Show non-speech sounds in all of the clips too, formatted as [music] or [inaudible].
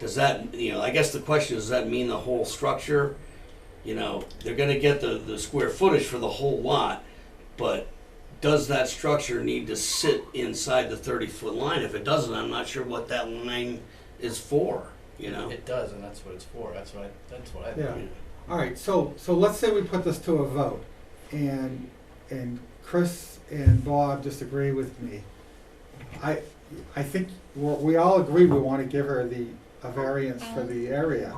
Does that, you know, I guess the question is, does that mean the whole structure? You know, they're gonna get the, the square footage for the whole lot, but does that structure need to sit inside the thirty-foot line? If it doesn't, I'm not sure what that line is for, you know? It does, and that's what it's for, that's what I, that's what I. Yeah. All right, so, so let's say we put this to a vote, and, and Chris and Bob disagree with me. I, I think we're, we all agree we wanna give her the, a variance for the area.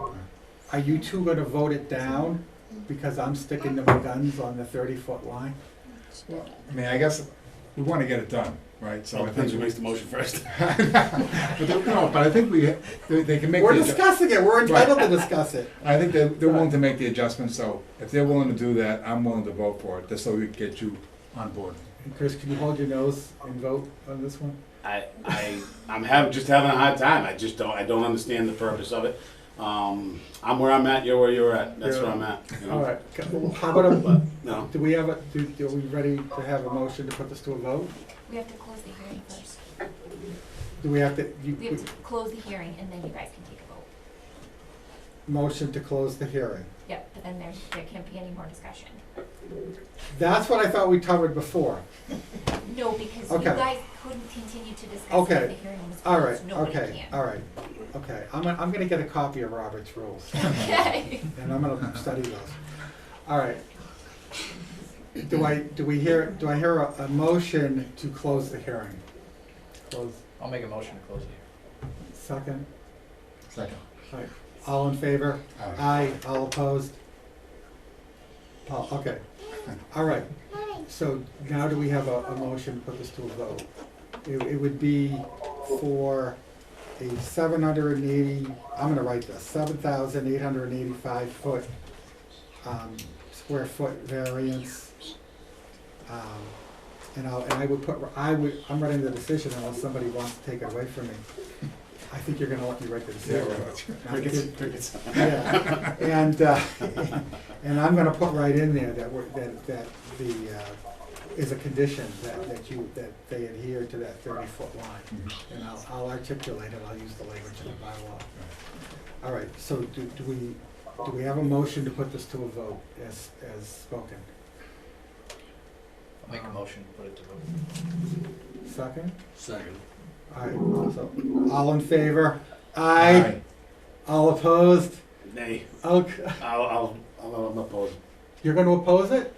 Are you two gonna vote it down, because I'm sticking to my guns on the thirty-foot line? Well, I mean, I guess we want to get it done, right? So I think we. the motion first. [laughs] But they- no, but I think we, they, they can make. We're the adju- discussing it, we're entitled to discuss it. I think they're, they're willing to make the adjustments, so if they're willing to do that, I'm willing to vote for it, just so we can get you on board. [laughs] And Chris, can you hold your nose and vote on this one? I, I, I'm having, just having a hard time. I just don't, I don't understand the purpose of it. Um, I'm where I'm at, you're where you're at. That's where I'm at, you know? All right, how about a, But, no. do we have a, do, are we ready to have a motion to put this to a vote? We have to close the hearing first. Do we have to, you, We have to close the hearing and then you guys can take a vote. motion to close the hearing? Yep, but then there's, there can't be any more discussion. That's what I thought we covered before. No, because Okay. you guys couldn't continue to discuss Okay. if the hearing was All right, closed. Nobody okay, can. all right, okay. I'm, gonna- I'm gonna get a copy of Robert's rules, [laughs] Okay. and I'm gonna study those. All right. Do I, do we hear, do I hear a, a motion to close the hearing? Close, I'll make a motion to close it second? Second. All right. All in favor? Aye, all opposed? Oh, okay, all right. So now do we have a, a motion to put this to a vote? It, it would be for a seven hundred and eighty, I'm gonna write this, seven thousand eight hundred and eighty-five foot, um, square foot variance. Um, And I'll, and I would put, I would, I'm writing the decision unless somebody wants to take it away from me. I think you're gonna let me write the [laughs] Yeah, decision. [laughs] right. Crickets, crickets. Yeah, and, uh, and I'm gonna put right in there that we're, that, that the, uh, is a condition that, that you, that they adhere to that thirty-foot line. Mhm. And I'll, I'll articulate it, I'll use the language in the bylaw. All right, so do, do we, do we have a motion to put this to a vote as, as spoken? here. I'll make a motion to put it to vote. Second? Second. All right, so, all in favor? Aye. All opposed? Nay, Okay, I'll, I'll, I'll, I'm opposed. you're gonna oppose it?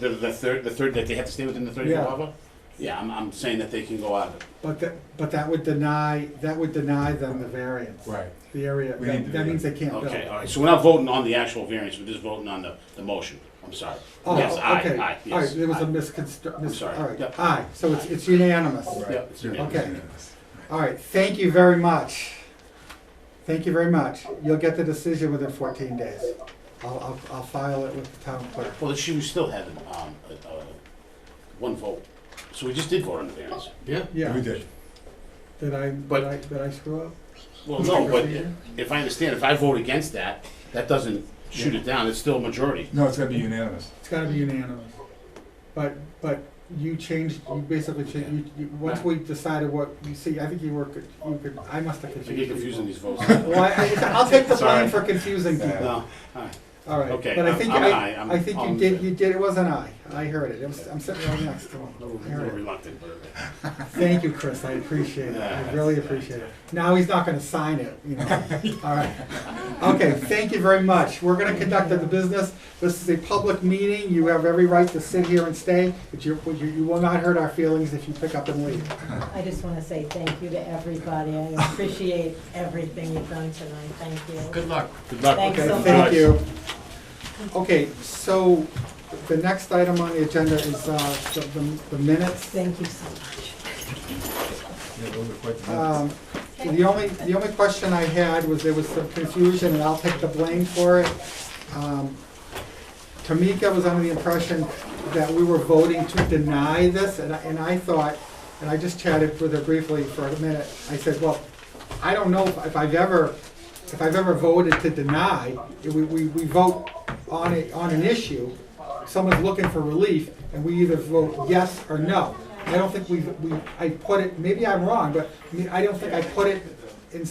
The, the third, the third, that they have to stay within the thirty Yeah. foot buffer? Yeah, I'm, I'm saying that they can go out of it. But that, but that would deny, that would deny them the variance. Right. The area, We need that, to that do means they can't build. Okay, all right, so we're not voting on the actual variance, we're just voting on the, the motion. I'm sorry. Oh, Yes, aye, okay. aye, All right, yes, there was a aye. misconstru, mis, all sorry. right, Yep. aye, so it's, it's unanimous. Right. Yep, it's Yeah, okay. unanimous. All right, thank you very much. Thank you very much. You'll get the decision within fourteen days. I'll, I'll, I'll file it with the town clerk. Well, she was still having, um, a, a, one vote. So we just did vote on the variance. Yeah. We Yeah, did. did I, But- did I, did I screw up? Well, no, but if I understand, if I vote against that, that doesn't shoot it down, it's still a majority. No, it's gonna be unanimous. It's gotta be unanimous. But, but you changed, you basically changed, you, you, once we decided what, you see, I think you were, co- you could, I must have I confused. get people. confusing these votes. Well, I, I- I'll take the [laughs] blame Sorry. for confusing [laughs] people, No, alright, all right. Okay, But I I'm- think I'm I- aye, I'm- I think you I'm- did, you did, it wasn't I, I heard it, It was- I'm sitting right next to him. a little a I little heard it. reluctant, but. Thank you, Chris, I appreciate it, I really appreciate it. Now he's not gonna sign it, [laughs] you know, all right. Okay, thank you very much, we're gonna conduct the business, this is a public meeting, you have every right to sit here and stay, but you, you you will not hurt our feelings if you pick up and leave. I just want to say thank you to everybody. I appreciate everything you've done tonight. Thank you. Good luck. Good luck. Thanks Okay, so thank much. you. Okay, so the next item on the agenda is uh, the- the- the minutes. Thank you so much. Yeah, those are quite the minutes. Um, The only, the only question I had was there was some confusion, and I'll take the blame for it. Um, Tamika was under the impression that we were voting to deny this, and I, and I thought, and I just chatted with her briefly for a minute, I said, well, I don't know if I've ever, if I've ever voted to deny, we, we, we vote on a, on an issue, someone's looking for relief, and we either vote yes or no. I don't think we, we, I put it, maybe I'm wrong, but I don't think I put it